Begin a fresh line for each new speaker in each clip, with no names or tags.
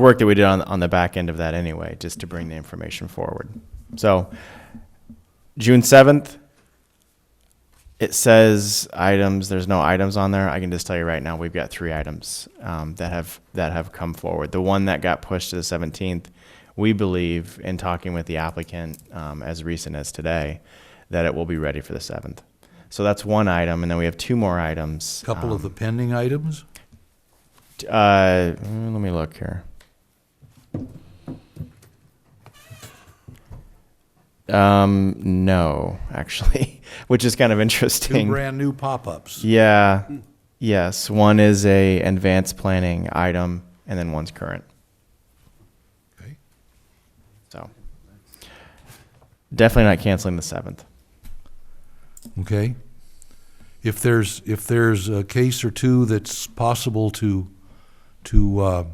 work that we did on, on the back end of that anyway, just to bring the information forward. So, June seventh, it says items, there's no items on there. I can just tell you right now, we've got three items, um, that have, that have come forward. The one that got pushed to the seventeenth, we believe, in talking with the applicant, um, as recent as today, that it will be ready for the seventh. So that's one item, and then we have two more items.
Couple of
um,
the pending items?
uh, mm, let me look here. Um, no, actually, which is kind of
Two
interesting.
brand-new pop-ups.
Yeah. Yes, one is a advanced planning item, and then one's current.
Okay.
So definitely not canceling the seventh.
Okay? If there's, if there's a case or two that's possible to, to uh,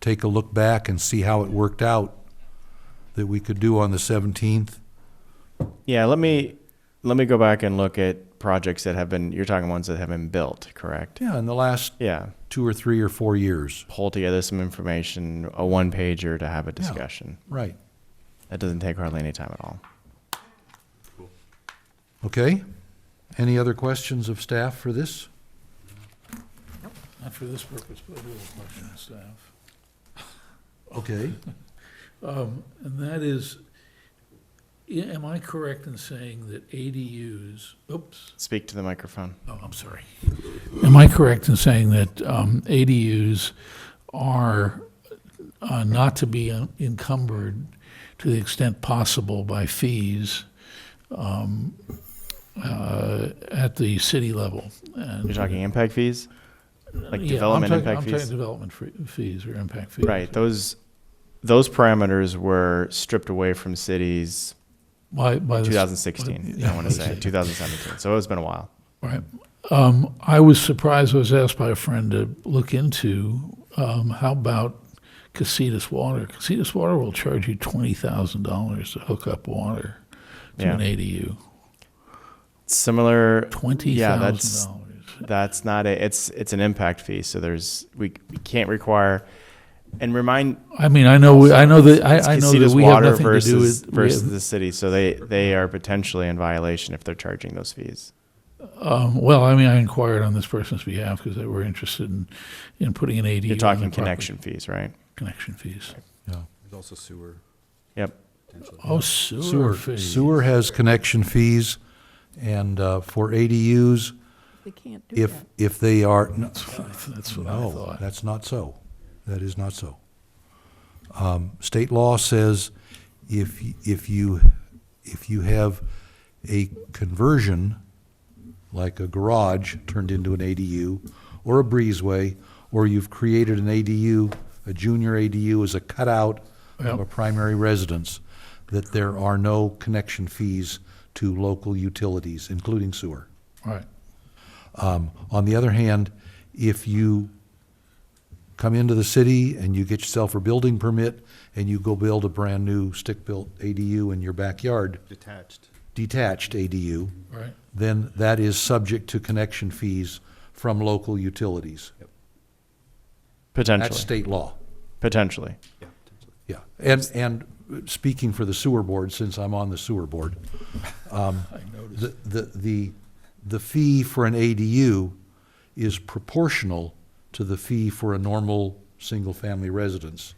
take a look back and see how it worked out, that we could do on the 17th,
Yeah, let me let me go back and look at projects that have been. You're talking ones that have been built, correct?
yeah, in the last
Yeah.
two or three or four years.
pull together some information, a one pager to have a discussion.
Right.
That doesn't take hardly any time at all.
Okay? Any other questions of staff for this?
Not for this purpose, but I do have a question, staff.
Okay.
Um, And that is, i- am I correct in saying that ADUs, oops,
Speak to the microphone.
oh, I'm sorry. Am I correct in saying that um, ADUs are uh, not to be encumbered to the extent possible by fees um, uh, at the city level?
You're talking impact fees? Like
Yeah, I'm
development
talking-
impact
I'm
fees?
talking development fre- fees or impact fees.
Right. Those those parameters were stripped away from cities
By, by the
2016. I want to say 2017. So it's been a while.
Right. Um, I was surprised, I was asked by a friend to look into, um, how about Casitas Water? Casitas Water will charge you twenty thousand dollars to hook up water to an
Yeah.
ADU.
Similar.
Twenty
Yeah,
thousand
that's
dollars.
that's not a. It's it's an impact fee. So there's we, we can't require. And remind
I mean, I know, we- I know that, I, I know that
Casitas
we have
Water
nothing to do
versus
with. we
versus
have-
the city. So they they are potentially in violation if they're charging those fees.
Um, well, I mean, I inquired on this person's behalf because they were interested in, in putting an ADU.
You're
on
talking
their property.
connection fees, right?
Connection fees.
Yeah.
There's also sewer.
Yep.
Oh, sewer
Sewer,
fees.
sewer has connection fees, and uh, for ADUs,
They can't do
if,
that.
if they are, no,
That's what I
no,
thought.
that's not so. That is not so. Um, State law says if, y- if you, if you have a conversion, like a garage turned into an ADU, or a breezeway, or you've created an ADU, a junior ADU is a cutout of a
Yep.
primary residence, that there are no connection fees to local utilities, including sewer.
Right.
Um, on the other hand, if you come into the city and you get yourself a building permit and you go build a brand-new stick-built ADU in your backyard,
Detached.
detached ADU,
Right.
then that is subject to connection fees from local utilities.
Potentially.
That's state law,
Potentially.
Yeah, potentially.
yeah. And, and speaking for the sewer board, since I'm on the sewer board,
I noticed.
the, the, the, the fee for an ADU is proportional to the fee for a normal single-family residence,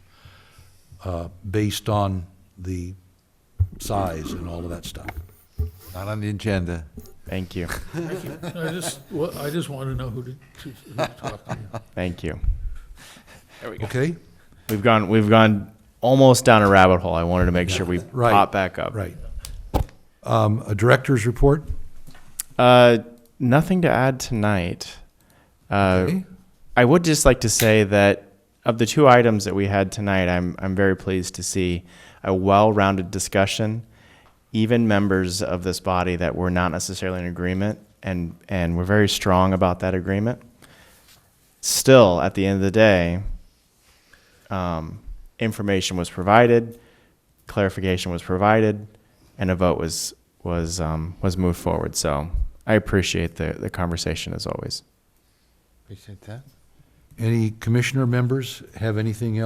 uh, based on the size and all of that stuff.
Not on the agenda.
Thank you.
I just, well, I just want to know who to, to who to talk to.
Thank you.
Okay?
We've gone we've gone almost down a rabbit hole. I wanted to make sure we
Right.
pop back up.
Right. Um, a director's report?
Uh, nothing to add tonight. Uh,
Okay.
I would just like to say that of the two items that we had tonight, I'm I'm very pleased to see a well-rounded discussion. Even members of this body that were not necessarily in agreement and and were very strong about that agreement. Still, at the end of the day, um, information was provided, clarification was provided, and a vote was was um, was moved forward. So I appreciate the the conversation as always.
Appreciate that.
Any commissioner members have anything else